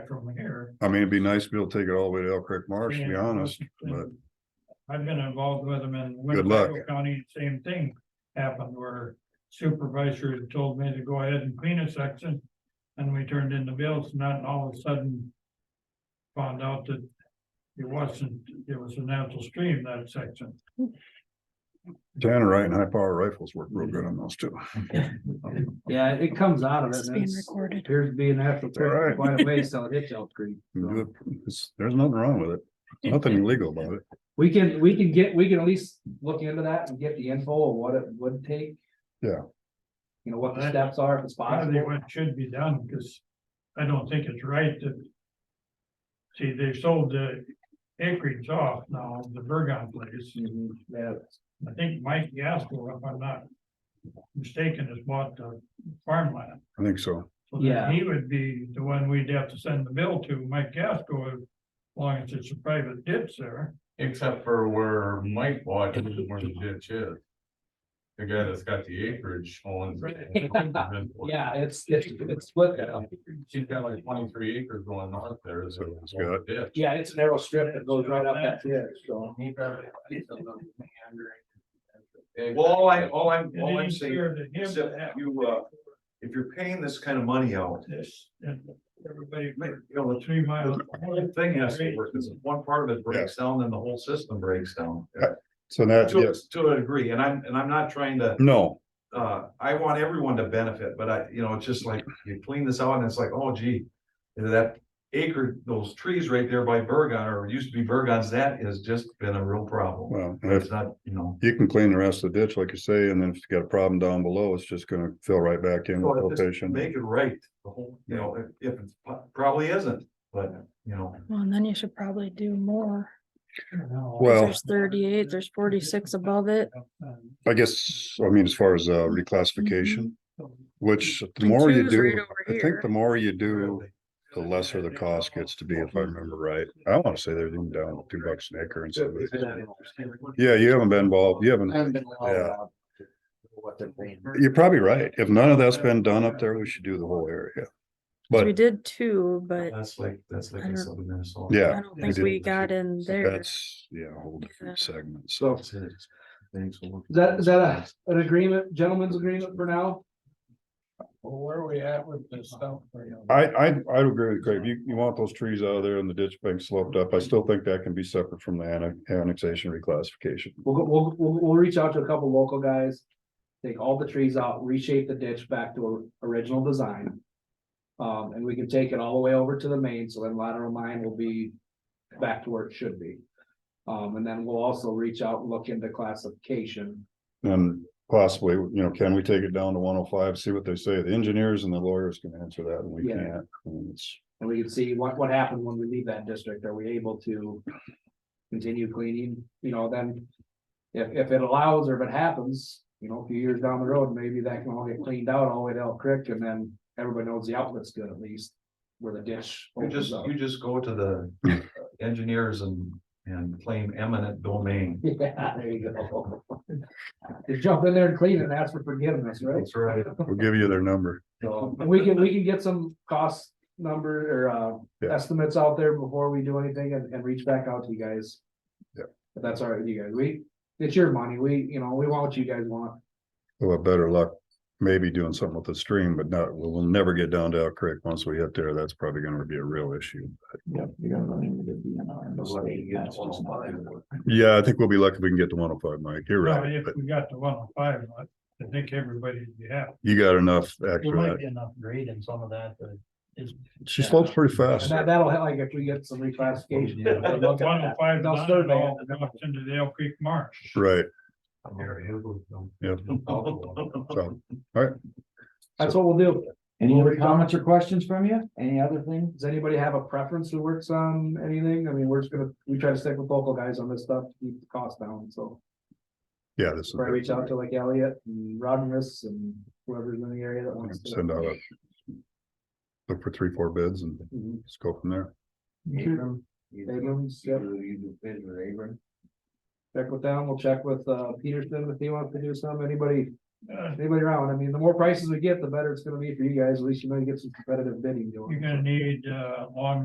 from here. I mean, it'd be nice to be able to take it all the way to Elk Creek Marsh, to be and- honest, but I've been involved with them in Good luck. Winnebago County, same thing happened where supervisors told me to go ahead and clean a section. And we turned in the bills and then all of a sudden found out that it wasn't, it was a natural stream, that section. Tannerite and high power rifles work real good on those two. Yeah, it comes out of it. It's and being it's- recorded. Appears to be an actual Alright. trip quite a ways till it hits Elk Creek. You do it- it's- There's nothing wrong with it, nothing illegal about it. We can, we can get, we can at least look into that and get the info of what it would take. Yeah. You know, what the steps are if it's I think possible. what should be done, because I don't think it's right that. See, they sold the acreage off now, the Bergon place. Mhm, Yeah, I think Mike Gasco, if I'm not mistaken, has bought the farmland. I think so. So then Yeah. he would be the one we'd have to send the bill to, Mike Gasco, as long as it's a private ditch there. Except for where Mike bought, it, where the ditch is. The guy that's got the acreage owns. yeah, it's, it's, it's split. uh, She's got like twenty-three acres going north there, so. That's good. ditch. Yeah, it's a narrow strip that goes right up that hill, so. Well, all I, all I'm, It all I'm ain't saying, fair to him except to have you, uh, if you're paying this kind of money out, this and everybody, you know, the three miles. whole thing has to work, because if one part of it breaks down, then the whole system breaks down. So that, To, yeah, to a degree, and I'm, and I'm not trying to no, uh, I want everyone to benefit, but I, you know, it's just like, you clean this out and it's like, oh gee. That acre, those trees right there by Bergon, or used to be Bergon's, that has just been a real problem. well, if It's not, you know. you can clean the rest of the ditch, like you say, and then if you got a problem down below, it's just gonna fill right back in with Well, just filtration. Make it right, the whole, you know, if- if, it's probably isn't, but, you know, Well, and then you should probably do more. 'cause Well- There's thirty-eight, there's forty-six above it. I guess, I mean, as far as uh reclassification, which the And more you two's right do, over I think here. the more you do, the lesser the cost gets to be, if I remember right. I wanna say they're even down to two bucks an acre and so. Yeah, you haven't been involved, you haven't, Haven't been allowed Yeah. out to What they're paying. you're probably right. If none of that's been done up there, we should do the whole area. We But did two, but That's like, that's like I in don't- southern Minnesota. yeah, I don't think we got in there. that's, yeah, a whole different segment, So. so. Thanks. Is Is that, is that a, an agreement, gentleman's agreement for now? Well, where are we at with this stuff? for you? I, I, I would agree with Craig. You, you want those trees out of there and the ditch bank sloped up. I still think that can be separate from the annex- annexation reclassification. We'll, go- we'll, we'll, we'll reach out to a couple local guys. Take all the trees out, reshape the ditch back to or- original design. Um, and we can take it all the way over to the main, so then lateral line will be back to where it should be. Um, and then we'll also reach out, and look into classification. And possibly, you know, can we take it down to one oh five, see what they say? The engineers and the lawyers can answer that and we Yeah. can't. And it's- And we can see what, what happened when we leave that district, are we able to continue cleaning, you know, then. If, if it allows or if it happens, you know, a few years down the road, maybe that can all get cleaned out all the way to Elk Creek and then everybody knows the outlet's good at least. Where the ditch. You opens just, up. you just go to the engineers and, and claim eminent domain. Yeah, there you go. Just jump in there and clean it and ask for forgiveness, right? That's right. We'll give you their number. So, and we can, we can get some cost number or uh Yeah. estimates out there before we do anything and, and reach back out to you guys. Yeah. If that's all right with you guys, we, it's your money, we, you know, we want what you guys want. We'll have better luck maybe doing something with the stream, but not, we'll, we'll never get down to Elk Creek. Once we hit there, that's probably gonna be a real issue. Yeah, I think we'll be lucky if we can get to one oh five, Mike. You're Well, right. if But we got the one oh five, I I think everybody'd be happy. you got enough after There that. might be enough grade in some of that, but it's. She slopes pretty And fast. that, that'll help, like, if we get some reclassification. Yeah. we'll One look at oh that. five, They'll nine, survey all it. goes into the Elk Creek Marsh. Right, Yeah. yeah. So, all right. That's what we'll do. Any other comments or questions from you? Any other thing? Does anybody have a preference who works on anything? I mean, we're just gonna, we try to stick with local guys on this stuff, to keep the cost down, so. Yeah, this is. Probably reach out to like Elliot and Rodness and whoever's in the area that wants to. Send out a. Look for three, four bids and Mhm. let's go from there. Abram, Abrams, yep. Check with them, we'll check with uh Peterson if he wants to do some, anybody uh, anybody around. I mean, the more prices we get, the better it's gonna be for you guys. At least you might get some competitive bidding going. you're gonna need, uh, long